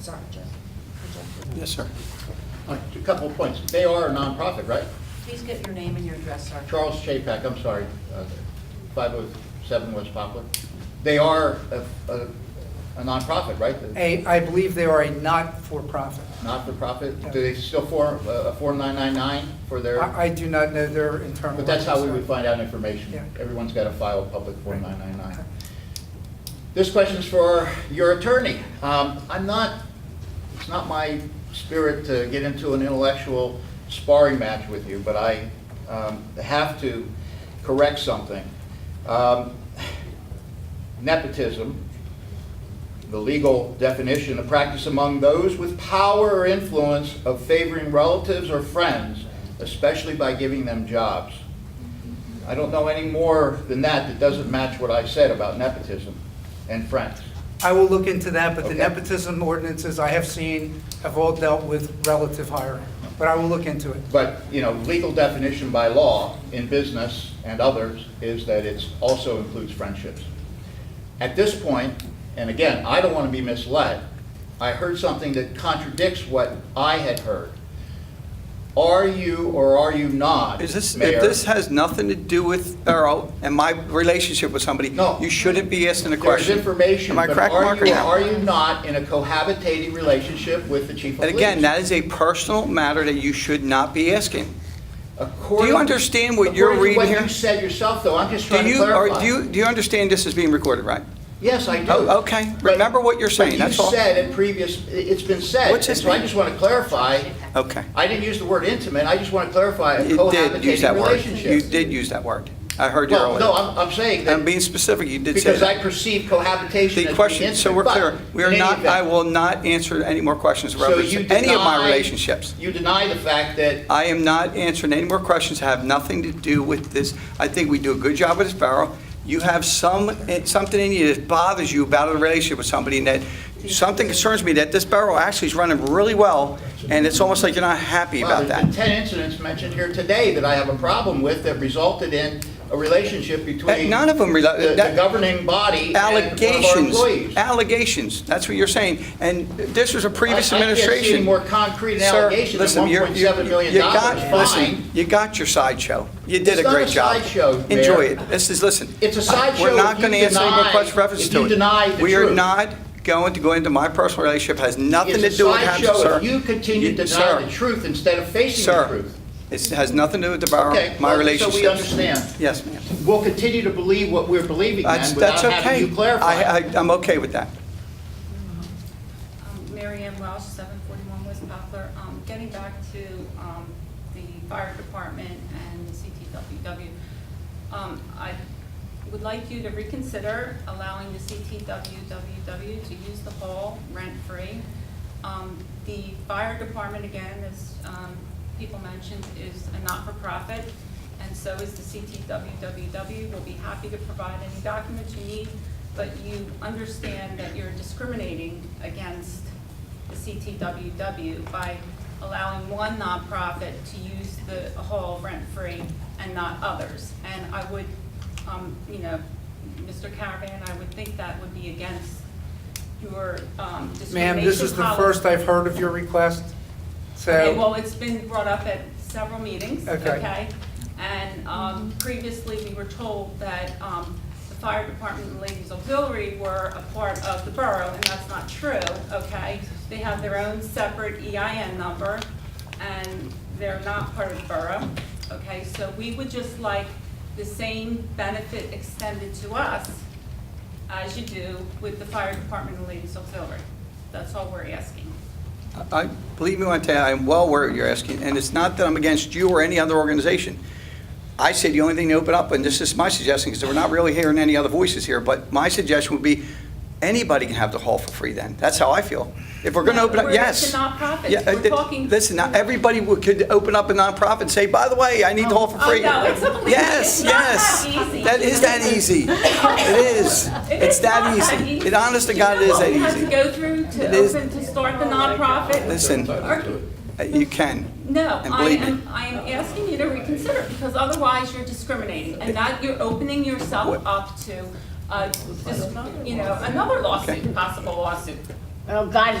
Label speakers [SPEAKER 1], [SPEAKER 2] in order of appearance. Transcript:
[SPEAKER 1] sorry, Jeff. Jeff.
[SPEAKER 2] Yes, sir.
[SPEAKER 3] A couple of points. They are a nonprofit, right?
[SPEAKER 1] Please get your name and your address, sir.
[SPEAKER 3] Charles Chapack, I'm sorry, uh, 507 West Poplar. They are a- a a nonprofit, right? The
[SPEAKER 2] A, I believe they are a not-for-profit.
[SPEAKER 3] Not-for-profit? Do they still form uh, a Form 999 for their,
[SPEAKER 2] I, I do not know their internal.
[SPEAKER 3] but that's how we would
[SPEAKER 2] records.
[SPEAKER 3] find out information.
[SPEAKER 2] Yeah.
[SPEAKER 3] Everyone's got to file a public Form
[SPEAKER 2] Right.
[SPEAKER 3] 999. This question's for your attorney. Um, I'm not, it's not my spirit to get into an intellectual sparring match with you, but I um, have to correct something. Um, Nepotism, the legal definition, a practice among those with power or influence of favoring relatives or friends, especially by giving them jobs. I don't know any more than that that doesn't match what I said about nepotism and friends.
[SPEAKER 2] I will look into that, but the
[SPEAKER 3] Okay.
[SPEAKER 2] nepotism ordinances I have seen have all dealt with relative hiring. But I will look into it.
[SPEAKER 3] But, you know, legal definition by law in business and others is that it's also includes friendships. At this point, and again, I don't want to be misled, I heard something that contradicts what I had heard. Are you or are you not,
[SPEAKER 4] Is this,
[SPEAKER 3] Mayor?
[SPEAKER 4] if this has nothing to do with Earl and my relationship with somebody,
[SPEAKER 3] No.
[SPEAKER 4] you shouldn't be asking the
[SPEAKER 3] There's
[SPEAKER 4] question.
[SPEAKER 3] information,
[SPEAKER 4] Am I
[SPEAKER 3] but
[SPEAKER 4] correct,
[SPEAKER 3] are
[SPEAKER 4] Mark, or
[SPEAKER 3] you,
[SPEAKER 4] no?
[SPEAKER 3] are you not in a cohabitating relationship with the chief of
[SPEAKER 4] And
[SPEAKER 3] police?
[SPEAKER 4] again, that is a personal matter that you should not be asking.
[SPEAKER 3] According-
[SPEAKER 4] Do you understand what you're
[SPEAKER 3] according to
[SPEAKER 4] reading
[SPEAKER 3] what you
[SPEAKER 4] here?
[SPEAKER 3] said yourself, though, I'm just
[SPEAKER 4] Do
[SPEAKER 3] trying to
[SPEAKER 4] you, or
[SPEAKER 3] clarify.
[SPEAKER 4] do you, do you understand this is being recorded, right?
[SPEAKER 3] Yes, I do.
[SPEAKER 4] Oh, okay.
[SPEAKER 3] But-
[SPEAKER 4] Remember what you're saying, that's all.
[SPEAKER 3] But you said in previous, i- it's been said.
[SPEAKER 4] What's his
[SPEAKER 3] So I
[SPEAKER 4] name?
[SPEAKER 3] just want to clarify,
[SPEAKER 4] Okay.
[SPEAKER 3] I didn't use the word intimate, I just want to clarify a
[SPEAKER 4] You did use that
[SPEAKER 3] cohabitating
[SPEAKER 4] word.
[SPEAKER 3] relationship.
[SPEAKER 4] You did use that word. I heard you
[SPEAKER 3] Well, no,
[SPEAKER 4] earlier.
[SPEAKER 3] I'm, I'm saying
[SPEAKER 4] I'm
[SPEAKER 3] that
[SPEAKER 4] being specific, you did say
[SPEAKER 3] because I
[SPEAKER 4] that.
[SPEAKER 3] perceive cohabitation as
[SPEAKER 4] The
[SPEAKER 3] being
[SPEAKER 4] question, so we're
[SPEAKER 3] intimate, but
[SPEAKER 4] clear, we are
[SPEAKER 3] in any
[SPEAKER 4] not, I
[SPEAKER 3] event-
[SPEAKER 4] will not answer any more questions
[SPEAKER 3] So
[SPEAKER 4] about
[SPEAKER 3] you
[SPEAKER 4] any of my
[SPEAKER 3] deny-
[SPEAKER 4] relationships.
[SPEAKER 3] You deny the fact that,
[SPEAKER 4] I am not answering any more questions, have nothing to do with this. I think we do a good job with this borough. You have some, eh, something in you that bothers you about a relationship with somebody, and that, something concerns me that this borough actually is running really well, and it's almost like you're not happy
[SPEAKER 3] well,
[SPEAKER 4] about
[SPEAKER 3] there's been
[SPEAKER 4] that.
[SPEAKER 3] 10 incidents mentioned here today that I have a problem with that resulted in a relationship
[SPEAKER 4] That-
[SPEAKER 3] between
[SPEAKER 4] None of them, rela-
[SPEAKER 3] the the
[SPEAKER 4] that-
[SPEAKER 3] governing body and one of our
[SPEAKER 4] allegations,
[SPEAKER 3] employees.
[SPEAKER 4] allegations, that's what you're saying. And this was a previous
[SPEAKER 3] I-
[SPEAKER 4] administration.
[SPEAKER 3] I can't see any more concrete
[SPEAKER 4] Sir,
[SPEAKER 3] allegation than
[SPEAKER 4] listen, you're- you
[SPEAKER 3] $1.7 million
[SPEAKER 4] you got,
[SPEAKER 3] dollars
[SPEAKER 4] listen,
[SPEAKER 3] fine.
[SPEAKER 4] you got your sideshow. You did
[SPEAKER 3] It's
[SPEAKER 4] a
[SPEAKER 3] not
[SPEAKER 4] great
[SPEAKER 3] a
[SPEAKER 4] job.
[SPEAKER 3] sideshow, Mayor.
[SPEAKER 4] Enjoy it. This is, listen.
[SPEAKER 3] It's a sideshow
[SPEAKER 4] We're
[SPEAKER 3] if
[SPEAKER 4] not
[SPEAKER 3] you
[SPEAKER 4] going to answer any more
[SPEAKER 3] deny-
[SPEAKER 4] questions reference
[SPEAKER 3] if
[SPEAKER 4] to it.
[SPEAKER 3] you deny the
[SPEAKER 4] We are
[SPEAKER 3] truth.
[SPEAKER 4] not going to go into my personal relationship, has nothing to
[SPEAKER 3] It's a
[SPEAKER 4] do with Hampton,
[SPEAKER 3] sideshow
[SPEAKER 4] sir.
[SPEAKER 3] if you continue to
[SPEAKER 4] sir,
[SPEAKER 3] deny the truth instead of facing the
[SPEAKER 4] Sir,
[SPEAKER 3] truth.
[SPEAKER 4] it has nothing to do with the borough,
[SPEAKER 3] Okay,
[SPEAKER 4] my
[SPEAKER 3] well, so we
[SPEAKER 4] relationship.
[SPEAKER 3] understand.
[SPEAKER 4] Yes, ma'am.
[SPEAKER 3] We'll continue to believe what we're believing
[SPEAKER 4] That's,
[SPEAKER 3] then
[SPEAKER 4] that's
[SPEAKER 3] without
[SPEAKER 4] okay.
[SPEAKER 3] having you clarify.
[SPEAKER 4] I, I- I'm okay with that.
[SPEAKER 5] Um, Mary Ann Welsh, 741 West Poplar. Um, Getting back to um, the fire department and CTWW, um, I would like you to reconsider allowing the CTWWW to use the hall rent-free. Um, The fire department, again, as um, people mentioned, is a not-for-profit, and so is the CTWWW. We'll be happy to provide any documents you need, but you understand that you're discriminating against the CTWW by allowing one nonprofit to use the hall rent-free and not others. And I would, um, you know, Mr. Caravan, I would think that would be against your um, discrimination
[SPEAKER 2] Ma'am, this is the
[SPEAKER 5] policy.
[SPEAKER 2] first I've heard of your request,
[SPEAKER 5] Okay,
[SPEAKER 2] so,
[SPEAKER 5] well, it's been brought up at several meetings,
[SPEAKER 2] Okay.
[SPEAKER 5] okay? And um, previously, we were told that um, the fire department and ladies auxiliary were a part of the borough, and that's not true, okay? They have their own separate EIN number, and they're not part of the borough, okay? So we would just like the same benefit extended to us as you do with the fire department and ladies auxiliary. That's all we're asking.
[SPEAKER 4] I, believe me when I tell you, I'm well aware of what you're asking, and it's not that I'm against you or any other organization. I say the only thing to open up, and this is my suggestion, because we're not really hearing any other voices here, but my suggestion would be, anybody can have the hall for free then. That's how I feel. If we're going to open up,
[SPEAKER 5] We're-
[SPEAKER 4] yes.
[SPEAKER 5] It's a nonprofit.
[SPEAKER 4] Yeah, uh,
[SPEAKER 5] We're
[SPEAKER 4] th-
[SPEAKER 5] talking-
[SPEAKER 4] Listen, not everybody would- could open up a nonprofit and say, by the way, I need the hall for
[SPEAKER 5] Oh,
[SPEAKER 4] free.
[SPEAKER 5] no, it's only-
[SPEAKER 4] Yes,
[SPEAKER 5] it's not
[SPEAKER 4] yes.
[SPEAKER 5] that easy.
[SPEAKER 4] That is that easy. It is.
[SPEAKER 5] It
[SPEAKER 4] It's
[SPEAKER 5] is
[SPEAKER 4] that
[SPEAKER 5] not that
[SPEAKER 4] easy.
[SPEAKER 5] easy.
[SPEAKER 4] It, honest to God, it
[SPEAKER 5] You know
[SPEAKER 4] is that
[SPEAKER 5] what we have to
[SPEAKER 4] easy.
[SPEAKER 5] go through
[SPEAKER 4] It
[SPEAKER 5] to
[SPEAKER 4] is-
[SPEAKER 5] open, to start the nonprofit?
[SPEAKER 4] Listen,
[SPEAKER 5] Or-
[SPEAKER 4] uh, you can.
[SPEAKER 5] No,
[SPEAKER 4] And
[SPEAKER 5] I
[SPEAKER 4] believe me.
[SPEAKER 5] am, I am asking you to reconsider, because otherwise you're discriminating, and that you're opening yourself
[SPEAKER 4] What-
[SPEAKER 5] up to, uh, dis- you know, another lawsuit, possible lawsuit.
[SPEAKER 6] Oh, God,